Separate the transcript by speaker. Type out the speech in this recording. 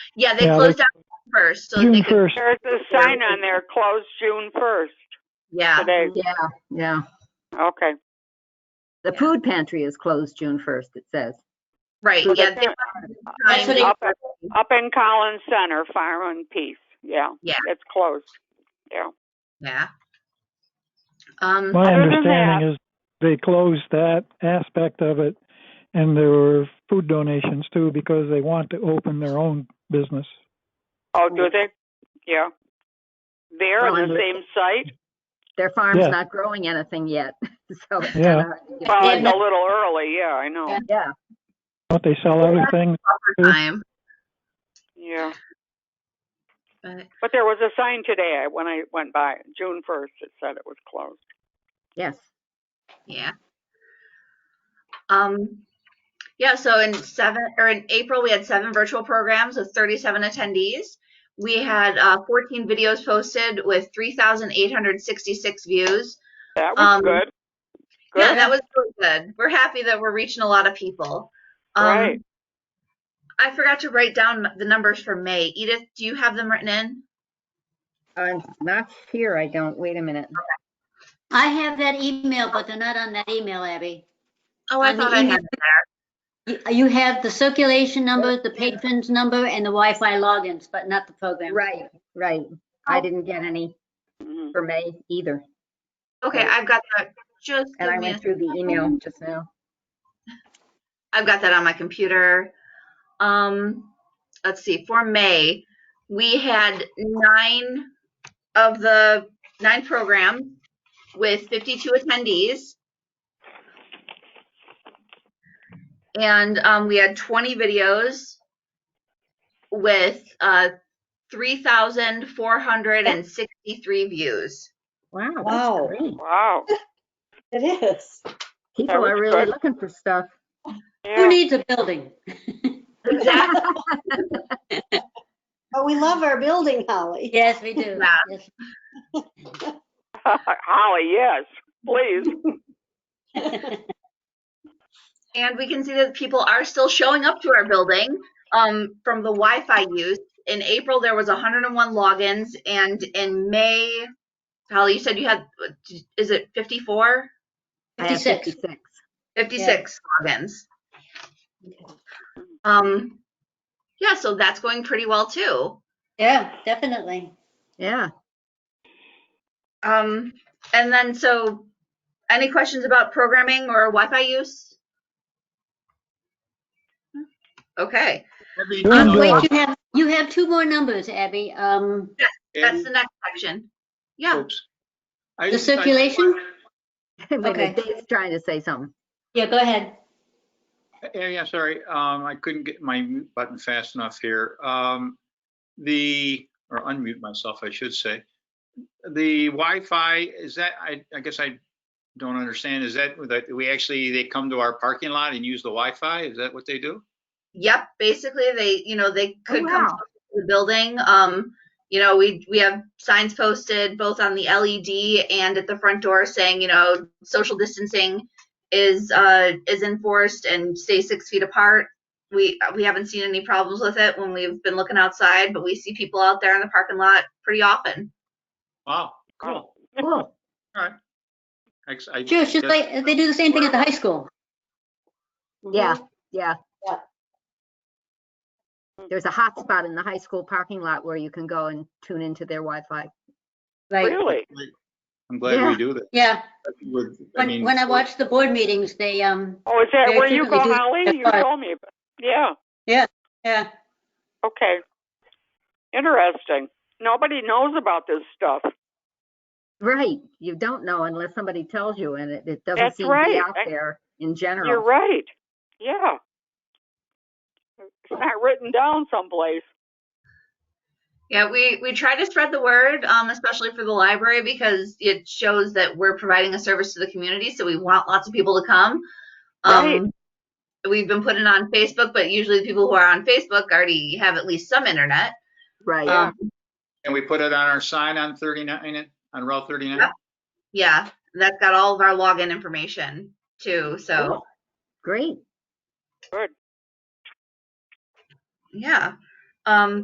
Speaker 1: Yeah, they
Speaker 2: Yeah,
Speaker 1: closed down first, so
Speaker 2: June
Speaker 1: they could,
Speaker 2: first.
Speaker 3: There's a sign on there, closed June first
Speaker 1: Ah.
Speaker 4: Yeah,
Speaker 3: today.
Speaker 1: yeah,
Speaker 4: yeah.
Speaker 3: Okay.
Speaker 4: The food pantry is closed June 1st, it says.
Speaker 1: right,
Speaker 3: So they
Speaker 1: yeah. they
Speaker 3: can't-
Speaker 1: That's what it-
Speaker 3: Up up in Collins Center, Farm and Peace, yeah.
Speaker 1: Yeah.
Speaker 3: It's closed, yeah.
Speaker 1: Yeah. Um,
Speaker 2: My
Speaker 3: Other than
Speaker 2: understanding is they closed that aspect of it and there were food donations too because they want to open their own business.
Speaker 3: Oh, do they? Yeah. They're on the
Speaker 4: Well,
Speaker 3: same site?
Speaker 4: Their farm's
Speaker 2: Yeah.
Speaker 4: not growing anything yet, so. it's kinda
Speaker 2: Yeah.
Speaker 4: hard to get-
Speaker 3: Well, it's
Speaker 1: And
Speaker 3: a little early, yeah, I know,
Speaker 4: Yeah,
Speaker 2: Don't they sell everything?
Speaker 1: time,
Speaker 3: yeah.
Speaker 1: but,
Speaker 3: But there was a sign today I- when I went by, June first, it said it was closed.
Speaker 4: yes.
Speaker 1: yeah. Um, yeah, so in seven, or in April, we had seven virtual programs with thirty-seven attendees. We had, uh, fourteen videos posted with three thousand eight hundred sixty-six views.
Speaker 3: That was
Speaker 1: Um,
Speaker 3: good.
Speaker 1: Yeah,
Speaker 3: Good.
Speaker 1: that was really good. We're happy that we're reaching a lot of people. Um,
Speaker 3: Right.
Speaker 1: I forgot to write down the numbers for May. Edith, do you have them written in?
Speaker 4: I'm not sure, I don't, wait a minute.
Speaker 5: I have that email, but they're not on that email, Abby.
Speaker 1: Oh, I
Speaker 5: On the
Speaker 1: thought I
Speaker 5: email.
Speaker 1: had them there.
Speaker 5: You you have the circulation number, the patrons number, and the Wi-Fi logins, but not the program.
Speaker 4: Right, right. I didn't get any
Speaker 3: Mhm.
Speaker 4: for May either,
Speaker 1: Okay, I've got that. Just
Speaker 4: and I
Speaker 1: give me a
Speaker 4: went through the email just now.
Speaker 1: I've got that on my computer. Um, let's see, for May, we had nine of the nine programs with 52 attendees. And um, we had 20 videos with uh, 3,463 views.
Speaker 4: Wow,
Speaker 6: Wow.
Speaker 4: that's great.
Speaker 3: Wow,
Speaker 6: It is.
Speaker 4: People are
Speaker 3: was
Speaker 4: really
Speaker 3: good.
Speaker 4: looking for stuff.
Speaker 5: Who
Speaker 3: yeah,
Speaker 5: needs a building?
Speaker 1: Exactly.
Speaker 6: But we love our building, Holly.
Speaker 5: Yes, we do.
Speaker 1: Yeah.
Speaker 5: Yes.
Speaker 3: Holly, yes, please.
Speaker 1: And we can see that people are still showing up to our building um, from the Wi Fi use. In April, there was 101 logins, and in May, Holly, you said you had, is it 54?
Speaker 4: I have
Speaker 5: 56.
Speaker 4: 56.
Speaker 1: 56 logins. Um, yeah, so that's going pretty well too.
Speaker 5: Yeah, definitely.
Speaker 4: Yeah,
Speaker 1: Um, and then, so any questions about programming or Wi Fi use? Hmm? Okay,
Speaker 7: Abby,
Speaker 2: Doing
Speaker 5: Um,
Speaker 2: good.
Speaker 5: Wait, you have, you have two more numbers, Abby. Um,
Speaker 1: that's the next section. Yeah,
Speaker 7: Oops. I-
Speaker 5: The
Speaker 7: I-
Speaker 5: circulation?
Speaker 4: Wait a minute,
Speaker 5: Okay.
Speaker 4: Dave's trying to say something.
Speaker 5: Yeah, go ahead.
Speaker 7: Yeah, yeah, sorry, um, I couldn't get my mute button fast enough here. Um, the, or unmute myself, I should say. The Wi-Fi is that, I, I guess I don't understand, is that, that we actually, they come to our parking lot and use the Wi-Fi? Is that what they do?
Speaker 1: Yep, basically they, you know, they could come
Speaker 4: wow.
Speaker 1: talk to the building. Um, you know, we we have signs posted both on the LED and at the front door saying, you know, social distancing is uh is enforced and stay six feet apart. We we haven't seen any problems with it when we've been looking outside, but we see people out there in the parking lot pretty often.
Speaker 7: Wow, cool.
Speaker 4: Cool.
Speaker 7: Ex- I-
Speaker 5: Sure, it's just
Speaker 7: guess-
Speaker 5: like, they do the same thing at the high school.
Speaker 4: Yeah, yeah.
Speaker 6: Yeah.
Speaker 4: There's a hotspot in the high school parking lot where you can go and tune into their Wi-Fi.
Speaker 5: Right.
Speaker 3: Really?
Speaker 7: I'm glad
Speaker 4: Yeah.
Speaker 7: we do that.
Speaker 5: Yeah,
Speaker 7: With- I
Speaker 5: when,
Speaker 7: mean,
Speaker 5: when I watch the board meetings, they, um,
Speaker 3: Oh, is that
Speaker 5: They
Speaker 3: where you go,
Speaker 5: frequently do
Speaker 3: Holly?
Speaker 5: that
Speaker 3: You
Speaker 5: part.
Speaker 3: told me, about- yeah,
Speaker 5: yeah,
Speaker 3: okay. Interesting. Nobody knows about this stuff.
Speaker 4: Right, you don't know unless somebody tells you, and it, it doesn't
Speaker 3: That's
Speaker 4: seem to be
Speaker 3: right.
Speaker 4: out
Speaker 3: I-
Speaker 4: there in
Speaker 3: You're
Speaker 4: general.
Speaker 3: right, yeah. It's not written down someplace.
Speaker 1: Yeah, we we try to spread the word, um, especially for the library because it shows that we're providing a service to the community, so we want lots of people to come. Um,
Speaker 3: Right.
Speaker 1: We've been putting it on Facebook, but usually the people who are on Facebook already have at least some internet.
Speaker 4: Right,
Speaker 3: Oh, Yeah.
Speaker 1: Um,
Speaker 7: And we put it on our sign on 39, on Route 39?
Speaker 1: Yeah. yeah, that's got all of our login information too. So
Speaker 4: great.
Speaker 3: Good.
Speaker 1: yeah, um,